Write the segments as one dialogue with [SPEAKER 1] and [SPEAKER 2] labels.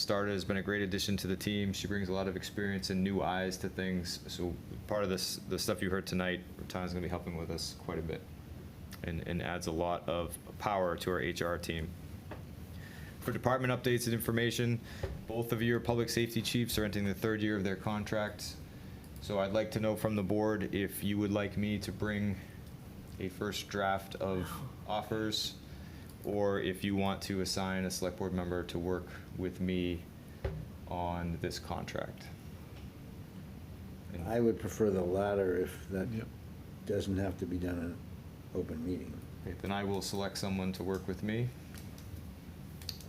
[SPEAKER 1] started, has been a great addition to the team. She brings a lot of experience and new eyes to things. So part of this, the stuff you heard tonight, Tana's going to be helping with us quite a bit and, and adds a lot of power to our HR team. For department updates and information, both of your public safety chiefs are entering the third year of their contracts. So I'd like to know from the board if you would like me to bring a first draft of offers, or if you want to assign a select board member to work with me on this contract.
[SPEAKER 2] I would prefer the latter if that
[SPEAKER 3] Yep.
[SPEAKER 2] doesn't have to be done in an open meeting.
[SPEAKER 1] Okay, Then I will select someone to work with me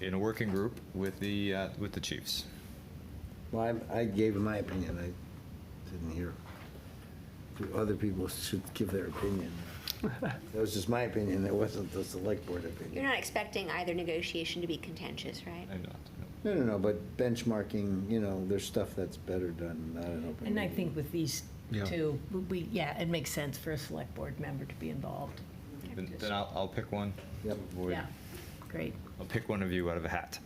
[SPEAKER 1] in a working group with the, uh, with the chiefs.
[SPEAKER 2] Well, I, I gave my opinion, I didn't hear. Other people should give their opinion. That was just my opinion, that wasn't the select board
[SPEAKER 4] You're
[SPEAKER 2] opinion.
[SPEAKER 4] not expecting either negotiation to be contentious, right?
[SPEAKER 1] I'm not, no.
[SPEAKER 2] No, no, no, but benchmarking, you know, there's stuff that's better done, not an open meeting.
[SPEAKER 5] And I think with these
[SPEAKER 3] Yeah.
[SPEAKER 5] two, we, yeah, it makes sense for a select board member to be involved.
[SPEAKER 1] Then, then I'll, I'll pick one.
[SPEAKER 2] Yep.
[SPEAKER 1] Avoid-
[SPEAKER 5] Yeah, great.
[SPEAKER 1] I'll pick one of you out of a hat.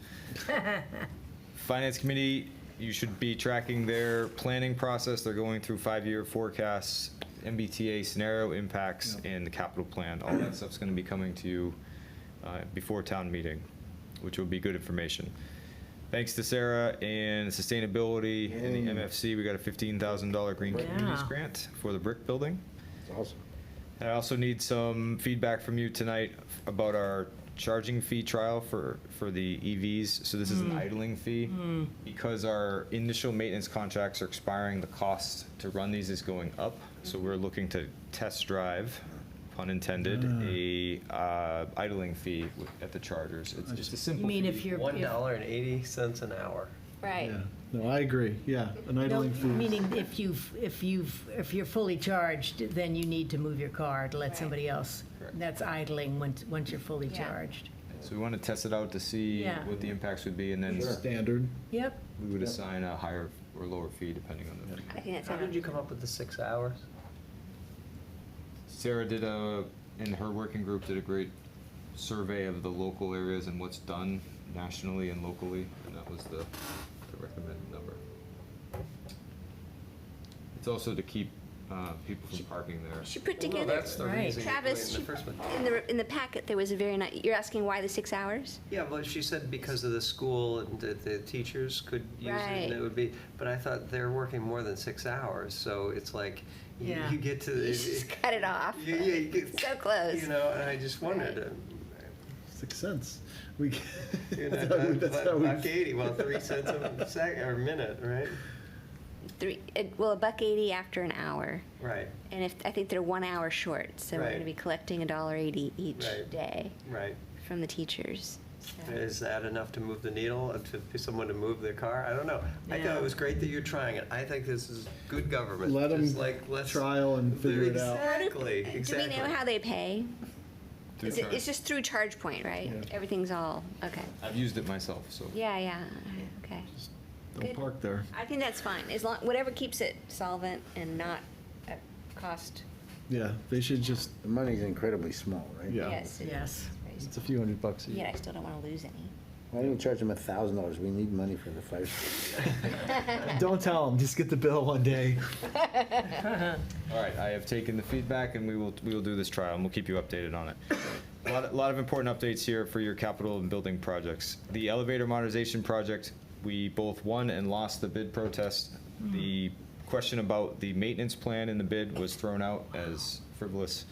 [SPEAKER 1] Finance Committee, you should be tracking their planning process. They're going through five-year forecasts, MBTA scenario impacts, and the capital plan. All that stuff's gonna be coming to you uh, before town meeting, which will be good information. Thanks to Sarah and Sustainability and the
[SPEAKER 2] Mm.
[SPEAKER 1] MFC, we got a fifteen thousand dollar Green Communities
[SPEAKER 5] Yeah.
[SPEAKER 1] grant for the brick building.
[SPEAKER 2] It's awesome.
[SPEAKER 1] I also need some feedback from you tonight about our charging fee trial for, for the EVs. So this is an
[SPEAKER 5] Hmm.
[SPEAKER 1] idling fee. Because our initial maintenance contracts are expiring, the cost to run these is going up. So we're looking to test drive, pun intended, a uh, idling fee wi- at the chargers. It's just a simple
[SPEAKER 5] You mean
[SPEAKER 1] fee.
[SPEAKER 5] if you're.
[SPEAKER 6] One
[SPEAKER 5] if-
[SPEAKER 6] dollar and eighty cents an hour.
[SPEAKER 4] Right.
[SPEAKER 3] Yeah, no, I agree, yeah, an idling
[SPEAKER 5] No,
[SPEAKER 3] fee.
[SPEAKER 5] Meaning if you've, if you've, if you're fully charged, then you need to move your car to let
[SPEAKER 4] Right.
[SPEAKER 5] somebody else.
[SPEAKER 1] Correct.
[SPEAKER 5] That's idling once, once you're fully
[SPEAKER 4] Yeah.
[SPEAKER 5] charged.
[SPEAKER 1] So we want to test it out to see
[SPEAKER 5] Yeah.
[SPEAKER 1] what the impacts would be and then
[SPEAKER 3] Standard.
[SPEAKER 5] Yep,
[SPEAKER 1] we would assign a higher or lower fee depending on the.
[SPEAKER 4] I think that's.
[SPEAKER 6] How did you come up with the six hours?
[SPEAKER 1] Sarah did a, and her working group did a great survey of the local areas and what's done nationally and locally, and that was the, the recommended number. It's also to keep, uh, people from parking there.
[SPEAKER 4] She put
[SPEAKER 6] Well, no,
[SPEAKER 4] together,
[SPEAKER 6] that's the
[SPEAKER 5] Right.
[SPEAKER 6] reason you put it
[SPEAKER 4] Travis,
[SPEAKER 6] in
[SPEAKER 4] she-
[SPEAKER 6] the first one.
[SPEAKER 4] in the, in the packet, there was a very nice, you're asking why the six hours?
[SPEAKER 6] Yeah, well, she said because of the school and that the teachers could use it,
[SPEAKER 4] Right.
[SPEAKER 6] and it would be, but I thought they're working more than six hours, so it's like, you
[SPEAKER 5] Yeah.
[SPEAKER 6] you get to.
[SPEAKER 4] You
[SPEAKER 6] it-
[SPEAKER 4] just
[SPEAKER 6] it-
[SPEAKER 4] cut it off.
[SPEAKER 6] Yeah, yeah, you get.
[SPEAKER 4] So close.
[SPEAKER 6] You know, and I just wondered,
[SPEAKER 3] Six cents. We, g-
[SPEAKER 6] uh, you know,
[SPEAKER 3] that's how we- that's how
[SPEAKER 6] a
[SPEAKER 3] we-
[SPEAKER 6] buck eighty, well, three cents a sec, or a minute, right?
[SPEAKER 4] Three, it- well, a buck eighty after an hour.
[SPEAKER 6] Right,
[SPEAKER 4] And if, I think they're one hour short, so we're
[SPEAKER 6] Right.
[SPEAKER 4] gonna be collecting a dollar eighty each
[SPEAKER 6] Right.
[SPEAKER 4] day
[SPEAKER 6] right.
[SPEAKER 4] from the teachers. so.
[SPEAKER 6] Is that enough to move the needle, uh, to for someone to move their car? I don't know. I thought
[SPEAKER 5] Yeah.
[SPEAKER 6] it was great that you're trying it. I think this is good government.
[SPEAKER 3] Let
[SPEAKER 6] Just
[SPEAKER 3] 'em
[SPEAKER 6] like, let's-
[SPEAKER 3] trial and figure it out.
[SPEAKER 6] Exactly,
[SPEAKER 4] Do
[SPEAKER 6] exactly.
[SPEAKER 4] we know how they pay?
[SPEAKER 1] Through
[SPEAKER 4] Is it,
[SPEAKER 1] charge.
[SPEAKER 4] it's just through ChargePoint, right?
[SPEAKER 3] Yeah.
[SPEAKER 4] Everything's all, okay.
[SPEAKER 1] I've used it myself, so.
[SPEAKER 4] Yeah, yeah, okay.
[SPEAKER 3] Don't
[SPEAKER 4] Good.
[SPEAKER 3] park there.
[SPEAKER 4] I think that's fine, as long, whatever keeps it solvent and not at cost.
[SPEAKER 3] Yeah, they should just,
[SPEAKER 2] The money's incredibly small, right?
[SPEAKER 3] Yeah.
[SPEAKER 4] Yes, it
[SPEAKER 5] yes.
[SPEAKER 4] is.
[SPEAKER 3] it's a few hundred bucks a
[SPEAKER 4] Yet
[SPEAKER 3] year.
[SPEAKER 4] I still don't wanna lose any.
[SPEAKER 2] Why don't we charge them a thousand dollars? We need money for the fire.
[SPEAKER 3] Don't tell them, just get the bill one day.
[SPEAKER 1] All right, I have taken the feedback and we will, we will do this trial and we'll keep you updated on it. A lot, a lot of important updates here for your capital and building projects. The elevator modernization project, we both won and lost the bid protest. The question about the maintenance plan in the bid was thrown out as frivolous.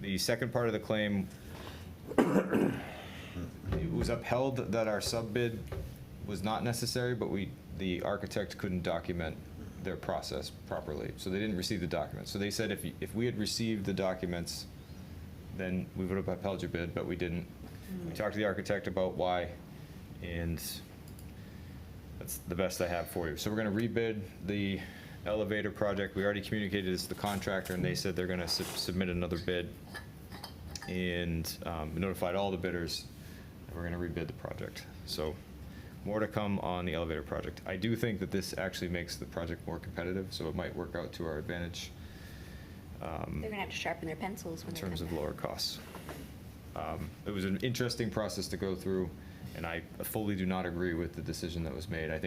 [SPEAKER 1] The second part of the claim it was upheld that our sub-bid was not necessary, but we, the architect couldn't document their process properly, so they didn't receive the documents. So they said if, you- if we had received the documents, then we would have upheld your bid, but we didn't. We talked to the architect about why, and that's the best I have for you. So we're gonna rebid the elevator project. We already communicated this to the contractor, and they said they're gonna sub- submit another bid and um, notified all the bidders that we're going to rebid the project. So more to come on the elevator project. I do think that this actually makes the project more competitive, so it might work out to our advantage um,
[SPEAKER 4] They're gonna have to sharpen their pencils
[SPEAKER 1] in
[SPEAKER 4] when they
[SPEAKER 1] terms
[SPEAKER 4] come
[SPEAKER 1] of
[SPEAKER 4] back.
[SPEAKER 1] lower costs. Um, It was an interesting process to go through. And I fully do not agree with the decision that was made. I think